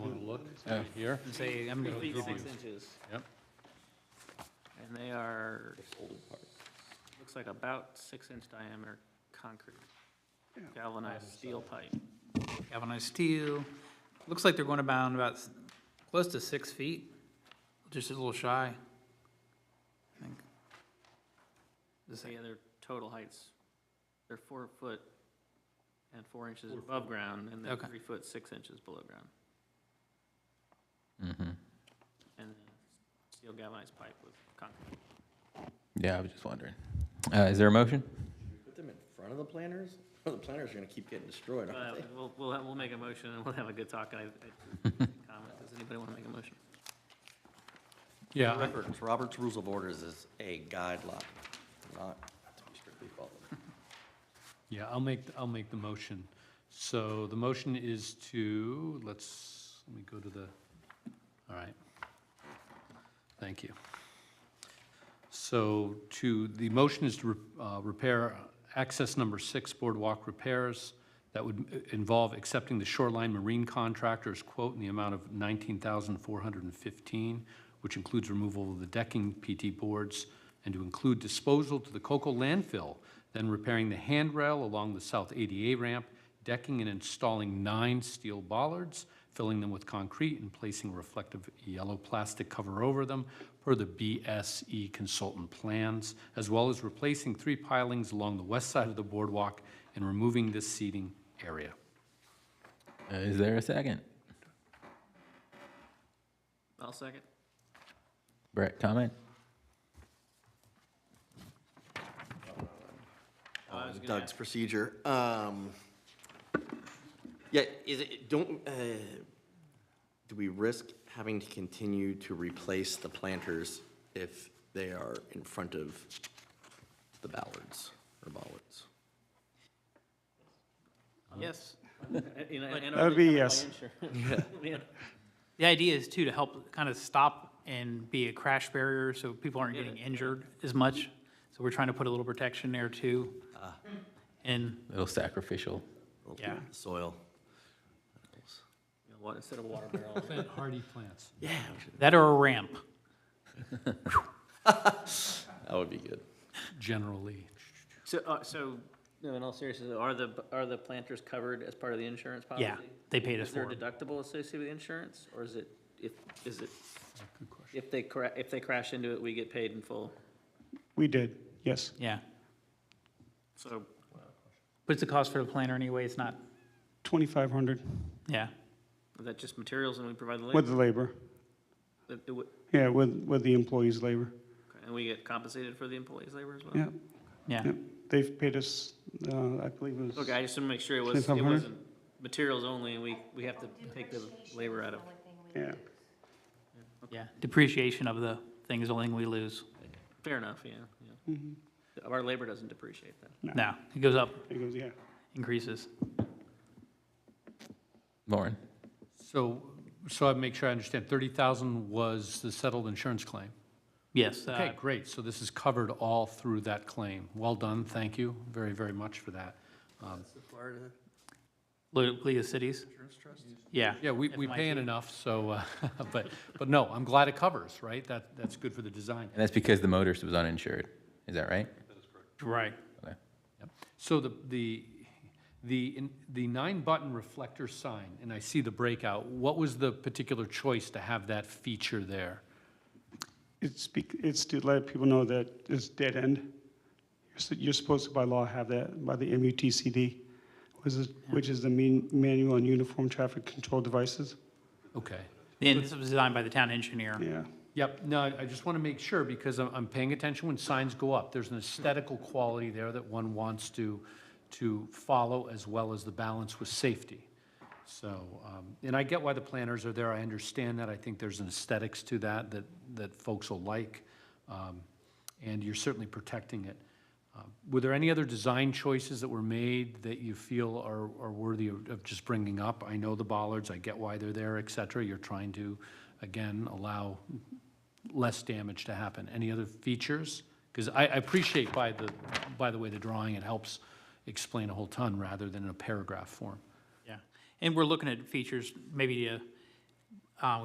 right here. Say, I'm gonna Feet give six you- inches, Yep. and they are, looks like about six-inch diameter concrete, galvanized steel pipe. galvanized steel. Looks like they're going about, about s- close to six feet, just a little shy. I think. Is that- The other total heights, they're four foot and four inches above ground, and then Okay. three foot, six inches below ground. And then steel galvanized pipe with concrete. Yeah, I was just wondering. Uh, is there a motion? Put them in front of the planters? The planters are gonna keep getting destroyed, Uh, aren't they? We'll, we'll, have- we'll make a motion and we'll have a good talk. I, I, comment, does anybody want to make a motion? Yeah, I- Roberts, Robert's Rules of Orders is a guideline, not to be strictly followed. yeah, I'll make, I'll make the motion. So the motion is to, let's, let me go to the, all right. Thank you. So to, the motion is to re- uh, repair access number six boardwalk repairs. That would uh, involve accepting the shoreline marine contractor's quote in the amount of 19415 which includes removal of the decking PT boards, and to include disposal to the Cocoa landfill, then repairing the handrail along the south ADA ramp, decking and installing nine steel bollards, filling them with concrete and placing reflective yellow plastic cover over them per the BSE consultant plans, as well as replacing three pilings along the west side of the boardwalk and removing this seating area. Uh, is there a second? I'll second. Brett, comment? I was gonna Uh, Doug's procedure, um, yeah, is it, don't, uh, do we risk having to continue to replace the planters if they are in front of the ballards or bollards? Yes. That would be yes. The idea is too, to help kind of stop and be a crash barrier, so people aren't getting injured as much. So we're trying to put a little protection there too. Ah. And, Little sacrificial. yeah, Soil. Instead of water barrel. Plant hardy plants. Yeah. that or a ramp. That would be good. Generally, So, uh, so, no, in all seriousness, are the, are the planters covered as part of the insurance policy? Yeah, they paid us Is there for a it. deductible associated with insurance, or is it, if, is it, good question. if they cra, if they crash into it, we get paid in full? We did, yes. Yeah. So, But it's a cost for the planner anyway, it's not, 2,500 yeah. is that just materials and we provide the with labor? the labor. That it would- Yeah, with, with the employees' labor. And we get compensated for the employees' labor as well? Yeah, Yeah, yeah. They've paid us, uh, I believe it was. Okay, I just want to make sure it was, it 2,500? wasn't materials only, and we, we have to take the labor out of. Yeah. yeah. Depreciation of the thing is the only thing we lose. Fair enough, yeah, yeah. Our labor doesn't depreciate that. No, it goes up, It goes, yeah. increases. Lauren? So, so I make sure I understand, 30,000 was the settled insurance claim? Yes. uh, Okay, great, so this is covered all through that claim. Well done, thank you very, very much for that. Um, Leu- Leah Cities? Yeah. Yeah, we, we paying enough, so, uh, but, but no, I'm glad it covers, right? That, that's good for the design. And that's because the motorist was uninsured. Is that right? Right. Okay. Yep. So the, the, the, in- the nine-button reflector sign, and I see the breakout, what was the particular choice to have that feature there? It's, bec- it's to let people know that it's dead end. You're s- You're supposed to by law have that by the MUTCD, which is, which is the mean- manual on uniform traffic control devices. Okay. And this was designed by the town engineer. Yeah. Yep, no, I I just want to make sure, because I'm, I'm paying attention when signs go up. There's an aesthetical quality there that one wants to, to follow, as well as the balance with safety. So, um, and I get why the planners are there, I understand that, I think there's an aesthetics to that, that, that folks will like, Um, and you're certainly protecting it. Uh, Were there any other design choices that were made that you feel are, are worthy of of just bringing up? I know the bollards, I get why they're there, et cetera, you're trying to, again, allow less damage to happen. Any other features? Because I, I appreciate by the, by the way, the drawing, it helps explain a whole ton rather than in a paragraph form. Yeah. And we're looking at features, maybe to